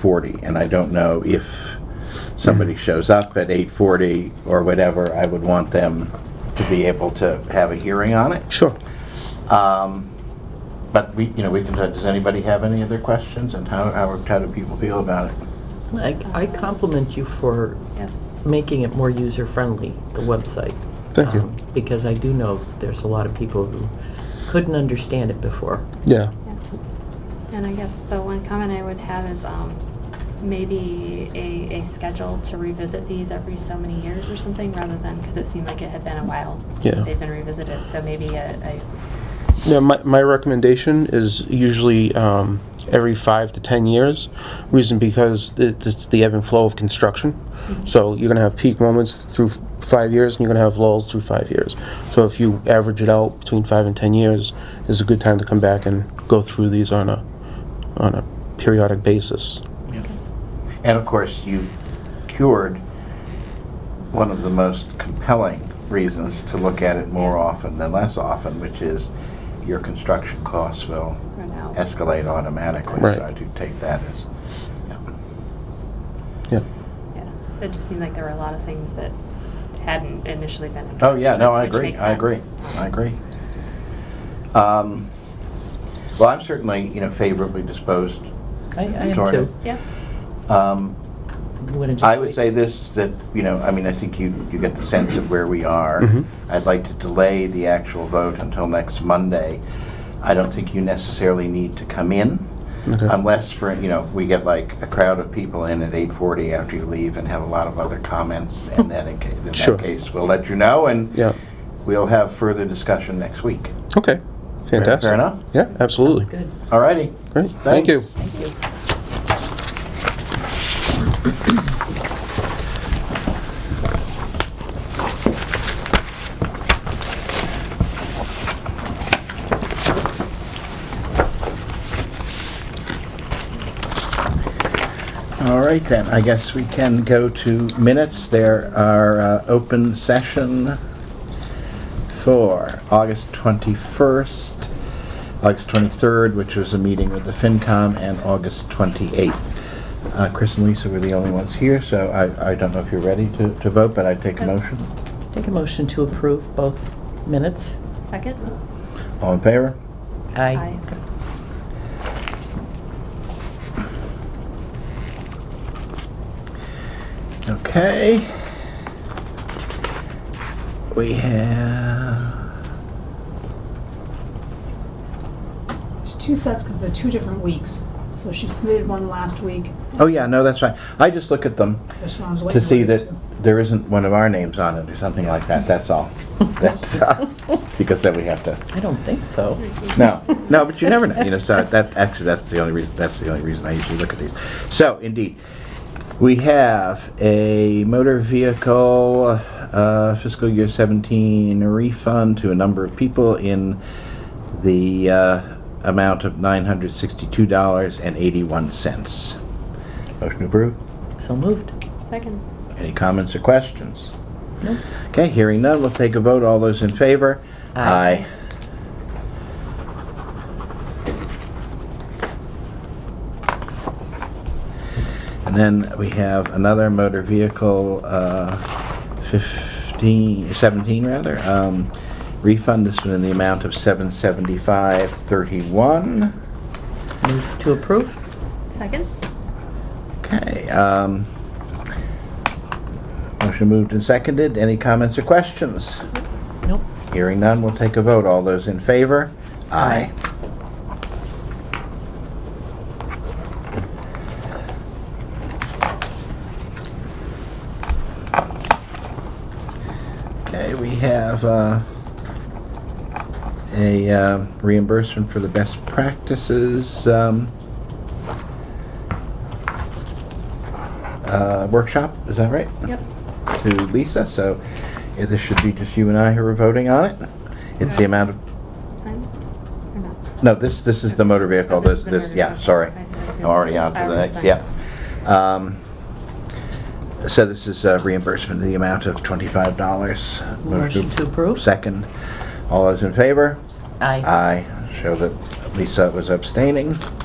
forty, and I don't know if somebody shows up at eight forty or whatever, I would want them to be able to have a hearing on it. Um, Sure. But we, you know, we can, does anybody have any other questions, and how, how how do people feel about it? I I compliment you for Yes. making it more user-friendly, the website. Thank you. Um, Because I do know there's a lot of people who couldn't understand it before. Yeah. And I guess the one comment I would have is um, maybe a, a schedule to revisit these every so many years or something, rather than, because it seemed like it had been a while Yeah. since they've been revisited, so maybe a, a, Yeah, my, my recommendation is usually um, every five to 10 years. Reason because it- it's the ebb and flow of construction. Mm-hmm. So you're going to have peak moments through f- five years and you're going to have lulls through five years. So if you average it out between five and 10 years, is a good time to come back and go through these on a, on a periodic basis. And of course, you cured one of the most compelling reasons to look at it more often than less often, which is your construction costs will run out. escalate automatically. Right. So I do take that as, Yeah. Yeah. It just seemed like there were a lot of things that hadn't initially been addressed. oh, yeah, no, I which agree, makes I agree, sense. I agree. Um, Well, I'm certainly, you know, favorably disposed. I I am Toward too. Yeah, Um, Wanna just I would wait? say this, that, you know, I mean, I think you, you get the sense of where we are. Mhm. I'd like to delay the actual vote until next Monday. I don't think you necessarily need to come in Okay. unless for, you know, we get like a crowd of people in at 8:40 after you leave and have a lot of other comments. And then in ca- in Sure. that case, we'll let you know and Yeah. we'll have further discussion next week. Okay. Fantastic. enough. Yeah, absolutely. Sounds good. All righty. Great. Thank you. Thanks. Thank you. All right then, I guess we can go to minutes. There are uh, open session for August 21st, August 23rd, which was a meeting with the FinCom, and August 28th. Uh, Chris and Lisa were the only ones here, so I I don't know if you're ready to to vote, but I take a motion. Take a motion to approve both minutes. second? All in favor? Aye. Okay. We have, There's two sets because they're two different weeks. So she submitted one last week. oh yeah, no, that's right. I just look at them. This one I was waiting to for see these that two. there isn't one of our names on it or something like that, that's all. That's, uh, because then we have to, I don't think so. no, no, but you never know, you know, so that, actually, that's the only reason, that's the only reason I usually look at these. So, indeed, we have a motor vehicle uh, fiscal year 17 refund to a number of people in the uh, amount of $962.81. Motion approved. So moved. Second. Any comments or questions? No. Okay, hearing none, we'll take a vote. All those in favor? Aye. And then we have another motor vehicle, uh, 15, 17 rather, um, refund. This one in the amount of 775.31. Move to approve. Second? Okay, um, motion moved and seconded. Any comments or questions? Nope. Hearing none, we'll take a vote. All those in favor? Aye. Okay, we have uh, a uh, reimbursement for the best practices um, uh, workshop, is that right? Yep. to Lisa, so yeah, this should be just you and I who are voting on it. It's the amount of, Signs? Or not? no, this, this is the motor vehicle, Oh, this, this is the this, motor yeah, vehicle. sorry. Okay, I was I'm gonna already say, on to I the next, already signed yeah. Um, So this is uh, reimbursement of the amount of twenty-five dollars. Motion to approve. Second. All those in favor? Aye. Aye. Show that Lisa was abstaining.